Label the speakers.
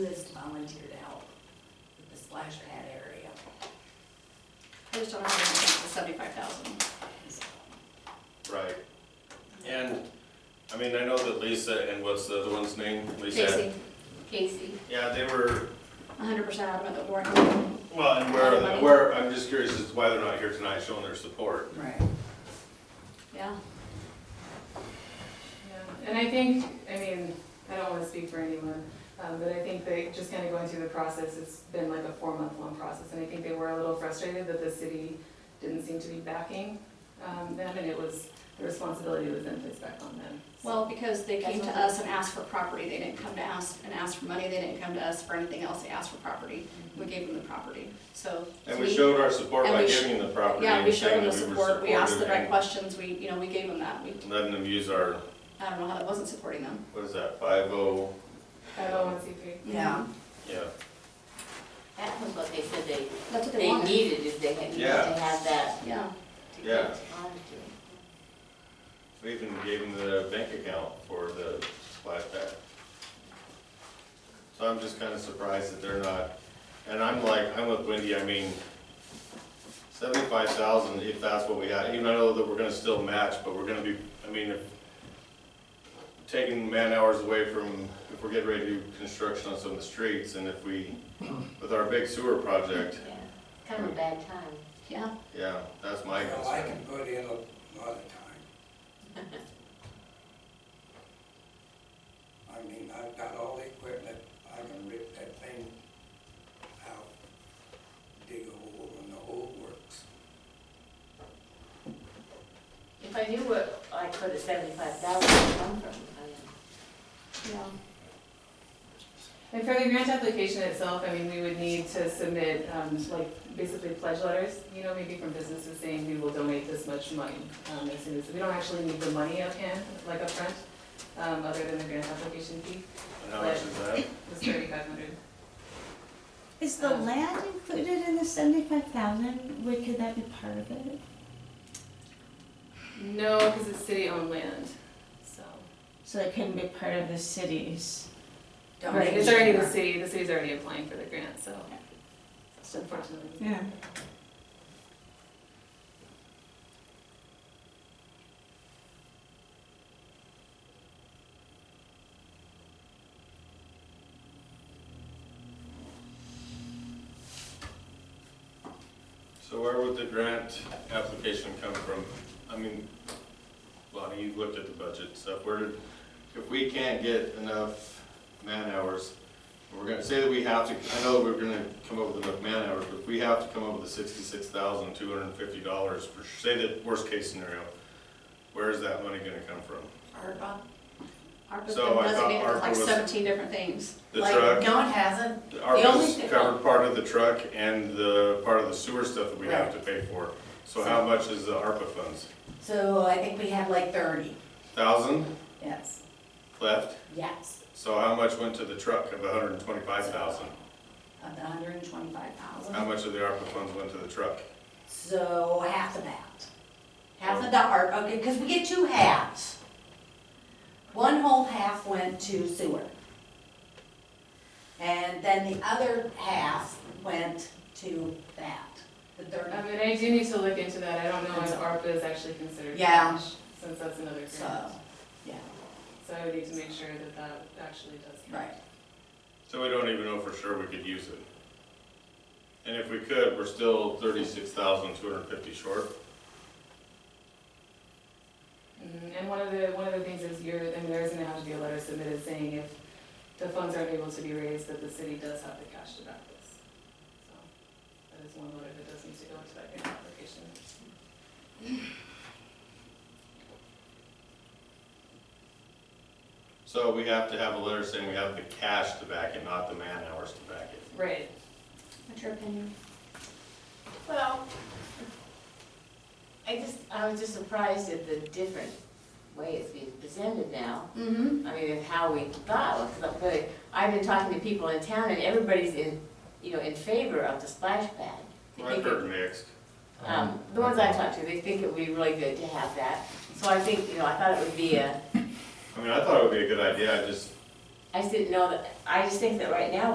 Speaker 1: Liz volunteered to help with the splash pad area.
Speaker 2: I just don't know how to get the seventy-five thousand.
Speaker 1: So,
Speaker 3: Right. And, I mean, I know that Lisa and what's the other one's name? Lisa.
Speaker 2: Casey, Casey,
Speaker 3: Yeah, they were,
Speaker 2: hundred percent adamant that Warren,
Speaker 3: well, and
Speaker 2: A lot of money.
Speaker 3: where, where, I'm just curious as to why they're not here tonight showing their support.
Speaker 1: Right.
Speaker 2: yeah.
Speaker 4: Yeah, And I think, I mean, I don't wanna speak for anyone, um, but I think they, just kinda going through the process, it's been like a four-month-long process, and I think they were a little frustrated that the city didn't seem to be backing, um, them, and it was, the responsibility was then placed back on them. So-
Speaker 2: Well, because they came
Speaker 4: That's
Speaker 2: to
Speaker 4: what-
Speaker 2: us and asked for property, they didn't come to ask, and ask for money, they didn't come to us for anything else, they asked for property. We gave them the property, so. to
Speaker 3: And we
Speaker 2: me-
Speaker 3: showed our support
Speaker 2: and
Speaker 3: by
Speaker 2: we sh-
Speaker 3: giving the property
Speaker 2: Yeah, we
Speaker 3: and
Speaker 2: showed them
Speaker 3: saying
Speaker 2: the
Speaker 3: that we were
Speaker 2: support, we asked the right
Speaker 3: supportive
Speaker 2: questions, we, you know, we gave them that, we,
Speaker 3: and letting them use our,
Speaker 2: I don't know how that wasn't supporting them.
Speaker 3: what is that, five oh,
Speaker 4: Five oh one C three.
Speaker 1: Yeah.
Speaker 3: yeah.
Speaker 5: That was what they said they,
Speaker 2: That's what they
Speaker 5: they
Speaker 2: wanted,
Speaker 5: needed, if they had, if they
Speaker 3: Yeah.
Speaker 5: had that
Speaker 2: yeah.
Speaker 5: to
Speaker 3: Yeah.
Speaker 5: get on to.
Speaker 3: We even gave them the bank account for the splash pad. So I'm just kinda surprised that they're not, and I'm like, I'm with Wendy, I mean, seventy-five thousand, if that's what we had, even I know that we're gonna still match, but we're gonna be, I mean, if taking man hours away from, if we're getting ready to do construction on some of the streets, and if we, with our big sewer project,
Speaker 5: Yeah. Kind of a bad time.
Speaker 2: Yeah,
Speaker 3: yeah, that's my
Speaker 6: Well, I
Speaker 3: concern.
Speaker 6: can put in a lot of time. I mean, I've got all the equipment, I can rip that thing out, dig a hole and the whole works.
Speaker 5: If I knew where I could have seventy-five thousand come from, I mean.
Speaker 2: yeah.
Speaker 4: And for the grant application itself, I mean, we would need to submit, um, like, basically pledge letters, you know, maybe from businesses saying we will donate this much money, um, as soon as, we don't actually need the money up hand, like upfront, um, other than the grant application fee,
Speaker 3: And how much is that?
Speaker 4: it was thirty-five hundred.
Speaker 7: Is the
Speaker 4: Um,
Speaker 7: land included in the seventy-five thousand? Would, could that be part of it?
Speaker 4: No, because it's city-owned land, so.
Speaker 7: So it couldn't be part of the city's,
Speaker 4: Right, it's already the city, the city's already applying for the grant, so. It's unfortunately.
Speaker 7: yeah.
Speaker 3: So where would the grant application come from? I mean, Lonnie, you looked at the budget stuff, where did, if we can't get enough man-hours, we're gonna say that we have to, I know that we're gonna come up with enough man-hours, but if we have to come up with the sixty-six thousand, two hundred and fifty dollars, for, say the worst-case scenario, where is that money gonna come from?
Speaker 2: ARPA. ARPA's
Speaker 3: So
Speaker 2: been
Speaker 3: I thought
Speaker 2: designated for
Speaker 3: ARPA
Speaker 2: like
Speaker 3: was-
Speaker 2: seventeen different things.
Speaker 3: The
Speaker 1: Like,
Speaker 3: truck,
Speaker 1: No, it hasn't. only
Speaker 3: ARPA's
Speaker 1: thing-
Speaker 3: covered part of the truck and the part of the sewer stuff that we have to pay for. So how much is the ARPA funds?
Speaker 1: So I think we have like thirty.
Speaker 3: Thousand
Speaker 1: Yes.
Speaker 3: left?
Speaker 1: Yes.
Speaker 3: So how much went to the truck of the hundred and twenty-five thousand? Oh.
Speaker 1: Of the hundred and twenty-five thousand.
Speaker 3: How much of the ARPA funds went to the truck?
Speaker 1: So half of that. Half of the art, okay, because we get two halves. One whole half went to sewer. And then the other half went to that, the third.
Speaker 4: I mean, I do need to look into that, I don't know if ARPA is actually considered
Speaker 1: Yeah.
Speaker 4: cash, since that's another grant.
Speaker 1: So, yeah,
Speaker 4: So I would need to make sure that that actually does count.
Speaker 1: right.
Speaker 3: So we don't even know for sure we could use it. And if we could, we're still thirty-six thousand two hundred and fifty short.
Speaker 4: Mm, And one of the, one of the things is you're, I mean, there is gonna have to be a letter submitted saying if the funds aren't able to be raised, that the city does have the cash to back this. So That is one letter that does need to go into that grant application.
Speaker 3: So we have to have a letter saying we have the cash to back it, not the man-hours to back it.
Speaker 4: Right.
Speaker 2: What's your opinion?
Speaker 5: Well, I just, I was just surprised at the different way it's being presented now.
Speaker 2: Mm-hmm.
Speaker 5: I mean, of how we thought, but I've been talking to people in town and everybody's in, you know, in favor of the splash pad. They
Speaker 3: I've
Speaker 5: think
Speaker 3: heard
Speaker 5: it-
Speaker 3: mixed.
Speaker 5: Um, the ones I talked to, they think it would be really good to have that. So I think, you know, I thought it would be a,
Speaker 3: I mean, I thought it would be a good idea, I just
Speaker 5: I just didn't know that, I just think that right now